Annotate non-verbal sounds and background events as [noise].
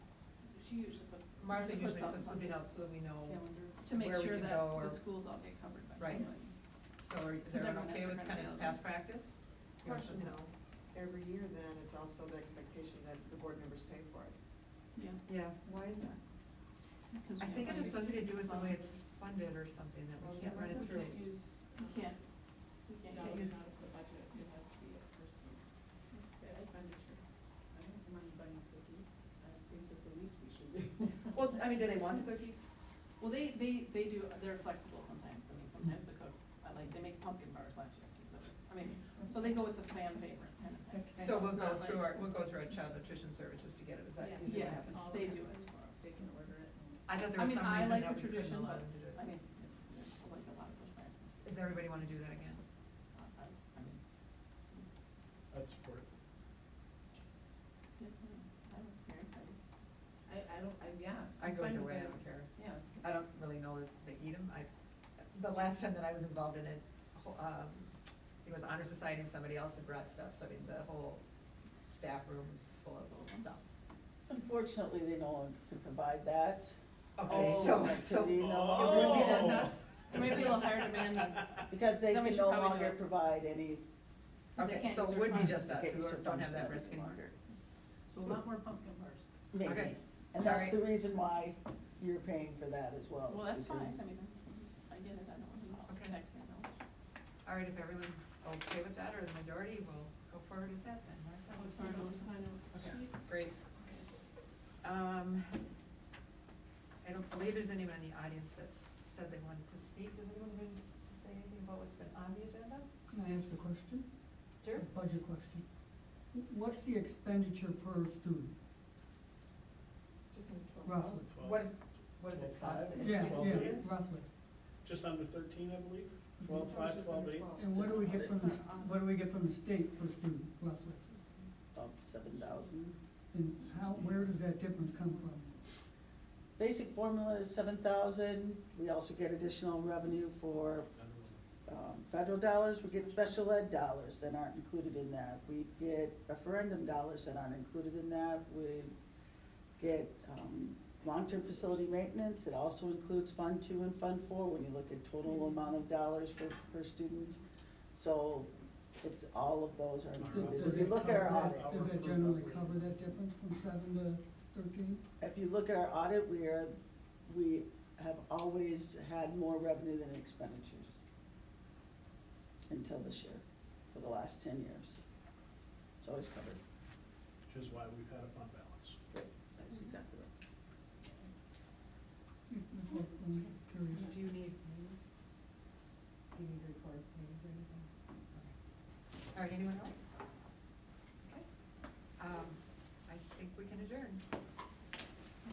she usually puts. Martha puts usually out puts the something months out so that we know, calendar To make where we sure can that go or- the schools all get covered by Right. somebody. so are, is Because everyone has everyone okay with different kind of availability. past practice? You want to- Question though, every year then, it's also the expectation that the board members pay for it. Yeah. Yeah, Why is that? because I we think it have has something to do with the way funds. it's funded or something, that Well, we can't run We it through. can't use, we can't, we can't Can't use. use- I don't mind buying cookies, I think that's the least we should do. Well, I mean, do they want the cookies? Well, they, they, they do, they're flexible sometimes, I mean, sometimes the cook, I like, they make pumpkin bars last year, I mean, so they go with the fan favorite kind of thing. So we'll go Not like- through our, we'll go through our child nutrition services to get it, is that, is it Yes, happens? all they the do it customers, for us. They can order it and. I thought there I was mean, some I like reason that the we couldn't tradition, allow but them to do it. I mean, there's like a lot of pushback, Does everybody wanna do that again? I, I, I mean, I'd support it. yeah, I don't care, I, I, I don't, I, yeah. I I'm go fine either with way, I that. don't care. Yeah. I don't really know if they eat them. I, the last time that I was involved in it, ho- um, it was honor society and somebody else had brought stuff, so I mean, the whole staff room was full of stuff. Unfortunately, they no longer can provide that. Okay, Oh, so, activity so, no Oh. longer- It would be Oh. us. It might be a little higher demand than, [laughs] Because they Then we can should no probably do longer it. provide any. 'cause they okay, can't so use it their would be funds. just us, Okay, who so don't have that functions any risk anymore. longer. so a lot more pumpkin bars. Okay. Maybe, and All that's right. the reason why you're paying for that as well. Well, is that's fine, because- Oh, I mean, I get it, I know, I'm Okay. taxpayer dollars. All right, if everyone's okay with that, or the majority, we'll go forward with that then, Martha. I'm sorry, I'll sign off. Okay, great. Um, I don't believe there's anyone in the audience that's said they wanted to speak. Does anyone want to say anything about what's been on the agenda? Can I ask a question? Sure. A budget question. Wh- What's the expenditure per student? Just in Roughly. What is, what is it Twelve five. cost? Yeah, Twelve yeah, students? roughly. Just under thirteen, I believe, Mm-hmm. Mhm. twelve five, Just twelve under eight. 12. And what do we get from, the s- Uh, what um, do we get from the state per student roughly? About seven thousand. And how, where does that difference come from? Basic formula is seven thousand. We also get additional revenue for I don't know. um, federal dollars, we get special ed dollars that aren't included in that. We get referendum dollars that aren't included in that. We get um, long-term facility maintenance. It also includes Fund Two and Fund Four when you look at total amount of dollars for, per student. So it's, all of those are included. Does If you it look at our cover audit, that- Does that generally cover that difference from seven to thirteen? if you look at our audit, we are, we have always had more revenue than expenditures until this year, for the last ten years. It's always covered. Which is why we've had a fund balance. That's exactly right. Just- just like, I'm curious. Do you need news? Do you need to record meetings or anything? All right, anyone else? Um,